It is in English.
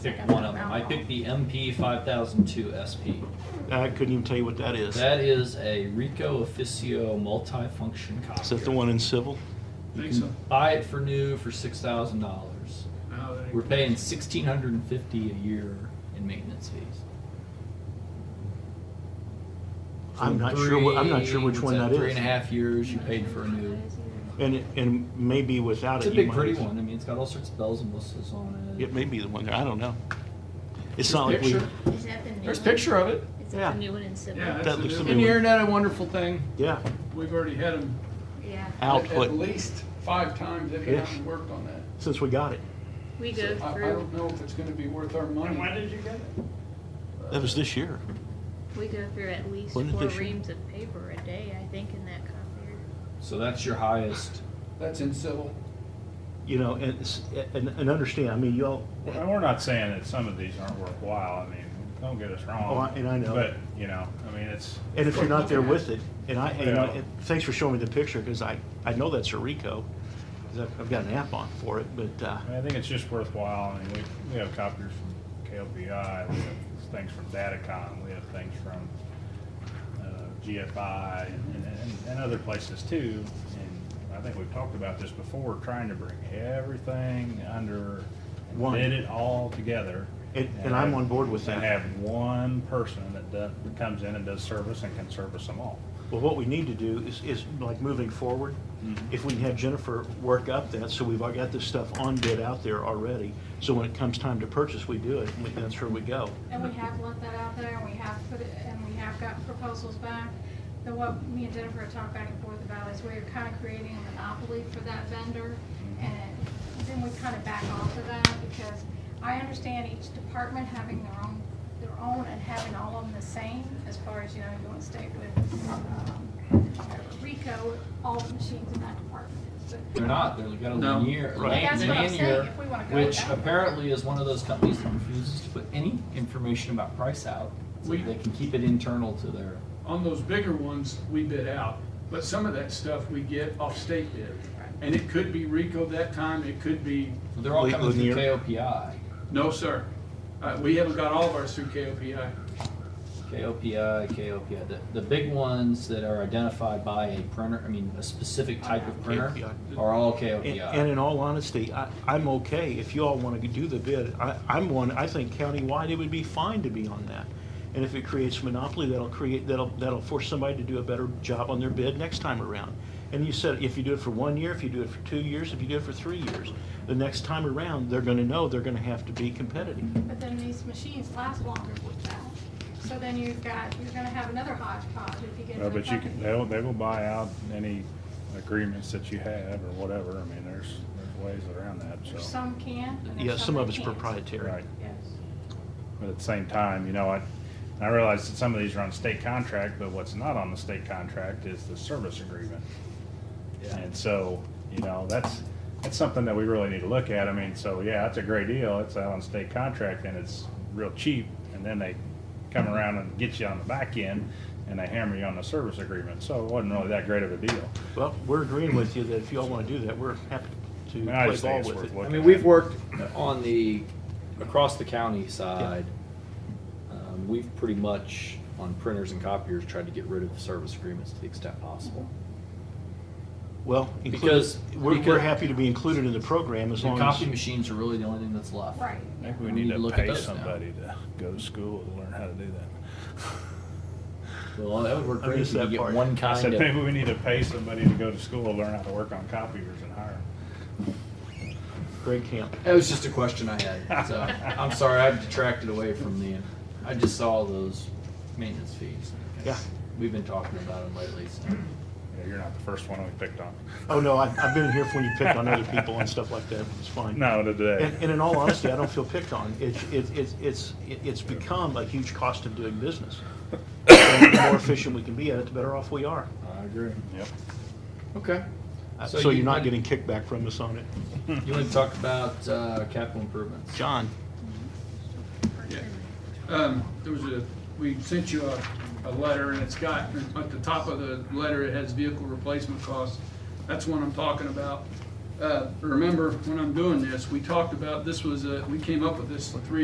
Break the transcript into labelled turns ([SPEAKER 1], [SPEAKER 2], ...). [SPEAKER 1] Pick one of them. I picked the MP 5002 SP.
[SPEAKER 2] I couldn't even tell you what that is.
[SPEAKER 1] That is a Rico Officio multifunction copier.
[SPEAKER 2] Is that the one in civil?
[SPEAKER 1] You
[SPEAKER 3] Think
[SPEAKER 1] can
[SPEAKER 3] so.
[SPEAKER 1] buy it for new for six thousand dollars.
[SPEAKER 3] No, that ain't-
[SPEAKER 1] We're paying sixteen hundred and fifty a year in maintenance fees.
[SPEAKER 2] I'm not sure what- I'm not sure which
[SPEAKER 1] Three-
[SPEAKER 2] one
[SPEAKER 1] what's
[SPEAKER 2] that
[SPEAKER 1] Three
[SPEAKER 2] is.
[SPEAKER 1] and a half years you paid for a new.
[SPEAKER 2] And it- and maybe without
[SPEAKER 1] It's
[SPEAKER 2] it,
[SPEAKER 1] a
[SPEAKER 2] you
[SPEAKER 1] big
[SPEAKER 2] might
[SPEAKER 1] pretty
[SPEAKER 2] as-
[SPEAKER 1] one. I mean, it's got all sorts of bells and whistles on it.
[SPEAKER 2] It may be the one there. I don't know. It's
[SPEAKER 1] There's
[SPEAKER 2] not like we.
[SPEAKER 1] picture.
[SPEAKER 4] Is that the new one?
[SPEAKER 1] There's a picture of it.
[SPEAKER 4] Is that
[SPEAKER 2] Yeah.
[SPEAKER 4] the new one in Civil?
[SPEAKER 3] Yeah,
[SPEAKER 2] That
[SPEAKER 3] that's the
[SPEAKER 2] looks
[SPEAKER 3] new
[SPEAKER 2] a
[SPEAKER 3] one.
[SPEAKER 1] Isn't the internet a wonderful thing?
[SPEAKER 2] Yeah.
[SPEAKER 3] We've already had them
[SPEAKER 4] Yeah.
[SPEAKER 3] at
[SPEAKER 2] Output
[SPEAKER 3] at least five times they've
[SPEAKER 2] Yes.
[SPEAKER 3] gone and worked on that.
[SPEAKER 2] since we got it.
[SPEAKER 4] We go
[SPEAKER 3] So I- I
[SPEAKER 4] through,
[SPEAKER 3] don't know if it's gonna be worth our money.
[SPEAKER 5] When did you get it?
[SPEAKER 2] That was this year.
[SPEAKER 4] we go through at least four
[SPEAKER 2] Wasn't it this year?
[SPEAKER 4] reams of paper a day, I think, in that copier.
[SPEAKER 1] So that's your highest.
[SPEAKER 3] That's in civil.
[SPEAKER 2] You know, and it's- and, and understand. I mean, y'all.
[SPEAKER 5] Well, we're not saying that some of these aren't worthwhile, I mean, don't get us wrong.
[SPEAKER 2] Oh, I- and I know.
[SPEAKER 5] But, you know, I mean, it's,
[SPEAKER 2] And if you're not there with it, and I, and, you know,
[SPEAKER 5] Yeah.
[SPEAKER 2] and thanks for showing me the picture because I, I know that's a Rico, 'cause I've, I've got an app on for it. But uh,
[SPEAKER 5] I mean, I think it's just worthwhile, I mean, we, we have copiers from KLBI, we have things from Datacom, we have things from, uh, GFI and, and, and other places too. And I think we've talked about this before, trying to bring everything under,
[SPEAKER 2] One.
[SPEAKER 5] knit it all together.
[SPEAKER 2] And- and I'm
[SPEAKER 5] have-
[SPEAKER 2] on board with
[SPEAKER 5] And
[SPEAKER 2] that.
[SPEAKER 5] have one person that does, comes in and does service and can service them all.
[SPEAKER 2] well, what we need to do is, is like moving forward, if we can have Jennifer work up that, so we've all got this stuff on bid out there already. So when it comes time to purchase, we do it. And we, that's where we go.
[SPEAKER 6] And we have let that out there, and we have put it, and we have gotten proposals back. The what me and Jennifer have talked back and forth about is we're kind of creating a monopoly for that vendor,
[SPEAKER 5] Mm-hmm.
[SPEAKER 6] and then we kind of back off of that, because I understand each department having their own, their own and having all of them the same, as far as, you know, you want to stay with, um, Rico, all the machines in that department is, but
[SPEAKER 1] They're not. They're got a
[SPEAKER 3] No.
[SPEAKER 1] linear,
[SPEAKER 2] Right.
[SPEAKER 6] That's what I'm saying,
[SPEAKER 1] linear,
[SPEAKER 6] if we wanna go
[SPEAKER 1] which
[SPEAKER 6] that way.
[SPEAKER 1] apparently is one of those companies that refuses to put any information about price out. So
[SPEAKER 3] We-
[SPEAKER 1] they can keep it internal to their.
[SPEAKER 3] On those bigger ones, we bid out, but some of that stuff we get off state bid. And it could be Rico that time, it could be,
[SPEAKER 1] They're all
[SPEAKER 2] Li-
[SPEAKER 1] coming through
[SPEAKER 2] linear.
[SPEAKER 1] KOPI.
[SPEAKER 3] no, sir. Uh, we haven't got all of ours through KOPI.
[SPEAKER 1] KOPI, KOPI, the, the big ones that are identified by a printer, I mean, a specific type of printer
[SPEAKER 2] KOPI.
[SPEAKER 1] are all
[SPEAKER 2] And, and
[SPEAKER 1] KOPI.
[SPEAKER 2] in all honesty, I, I'm okay if you all want to do the bid. I, I'm one, I think countywide, it would be fine to be on that. And if it creates monopoly, that'll create, that'll, that'll force somebody to do a better job on their bid next time around. And you said, if you do it for one year, if you do it for two years, if you do it for three years, the next time around, they're gonna know they're gonna have to be competitive.
[SPEAKER 6] But then these machines last longer with that. So then you've got, you're gonna have another hodgepodge if you get.
[SPEAKER 5] No,
[SPEAKER 6] to
[SPEAKER 5] but you can,
[SPEAKER 6] the-
[SPEAKER 5] they'll, they will buy out any agreements that you have or whatever, I mean, there's, there's ways around that,
[SPEAKER 6] There's
[SPEAKER 5] so.
[SPEAKER 6] some can. and there's
[SPEAKER 2] Yeah, some of
[SPEAKER 6] that
[SPEAKER 2] it's
[SPEAKER 6] can't.
[SPEAKER 2] proprietary.
[SPEAKER 5] Right,
[SPEAKER 6] Yes.
[SPEAKER 5] but at the same time, you know, I, I realize that some of these are on state contract, but what's not on the state contract is the service agreement. And so, you know, that's, that's something that we really need to look at, I mean, so, yeah, that's a great deal, it's out on state contract and it's real cheap, and then they come around and get you on the back end, and they hammer you on the service agreement, so it wasn't really that great of a deal.
[SPEAKER 2] Well, we're agreeing with you that if you all want to do that, we're happy to
[SPEAKER 5] mean, I
[SPEAKER 2] play
[SPEAKER 5] just think
[SPEAKER 2] ball
[SPEAKER 5] it's
[SPEAKER 2] with
[SPEAKER 5] worth
[SPEAKER 2] it.
[SPEAKER 1] I
[SPEAKER 5] looking
[SPEAKER 1] mean,
[SPEAKER 5] at.
[SPEAKER 1] we've worked on the, across the county side. Um, We've pretty much, on printers and copiers, tried to get rid of service agreements to the extent possible.
[SPEAKER 2] Well, included,
[SPEAKER 1] Because-
[SPEAKER 2] we're, we're
[SPEAKER 1] because-
[SPEAKER 2] happy to be included in the program as
[SPEAKER 1] The
[SPEAKER 2] long
[SPEAKER 1] copy
[SPEAKER 2] as,
[SPEAKER 1] machines are really the only thing that's left.
[SPEAKER 6] Right.
[SPEAKER 5] I think we
[SPEAKER 1] We
[SPEAKER 5] need
[SPEAKER 1] need to
[SPEAKER 5] to
[SPEAKER 1] look at
[SPEAKER 5] pay
[SPEAKER 1] those now.
[SPEAKER 5] somebody to go to school and learn how to do that.
[SPEAKER 1] Well, that would work
[SPEAKER 2] I
[SPEAKER 1] great if
[SPEAKER 2] missed
[SPEAKER 1] you
[SPEAKER 2] that
[SPEAKER 1] could get
[SPEAKER 2] part.
[SPEAKER 1] one
[SPEAKER 5] I
[SPEAKER 1] kind
[SPEAKER 5] said, maybe
[SPEAKER 1] of,
[SPEAKER 5] we need to pay somebody to go to school and learn how to work on copiers and hire 'em.
[SPEAKER 2] Greg Camp.
[SPEAKER 1] that was just a question I had, so, I'm sorry, I've detracted away from the, I just saw those maintenance fees.
[SPEAKER 2] Yeah.
[SPEAKER 1] We've been talking about them lately, so.
[SPEAKER 5] Yeah, you're not the first one we picked on.
[SPEAKER 2] Oh, no, I've, I've been in here for when you pick on other people and stuff like that. It's fine.
[SPEAKER 5] No, today.
[SPEAKER 2] And, and in all honesty, I don't feel picked on. It's, it's, it's, it's, it's become a huge cost of doing business. And the more efficient we can be at it, the better off we are.
[SPEAKER 1] I agree.
[SPEAKER 5] Yep.
[SPEAKER 1] Okay.
[SPEAKER 2] Uh,
[SPEAKER 1] So
[SPEAKER 2] So
[SPEAKER 1] you
[SPEAKER 2] you're not
[SPEAKER 1] want-
[SPEAKER 2] getting kickback from us on it. Hmm.
[SPEAKER 1] You want to talk about uh, capital improvements?
[SPEAKER 2] John?
[SPEAKER 3] Um, there was a, we sent you a, a letter and it's got, at the top of the letter, it has vehicle replacement costs. That's one I'm talking about. Uh, remember, when I'm doing this, we talked about, this was a, we came up with this three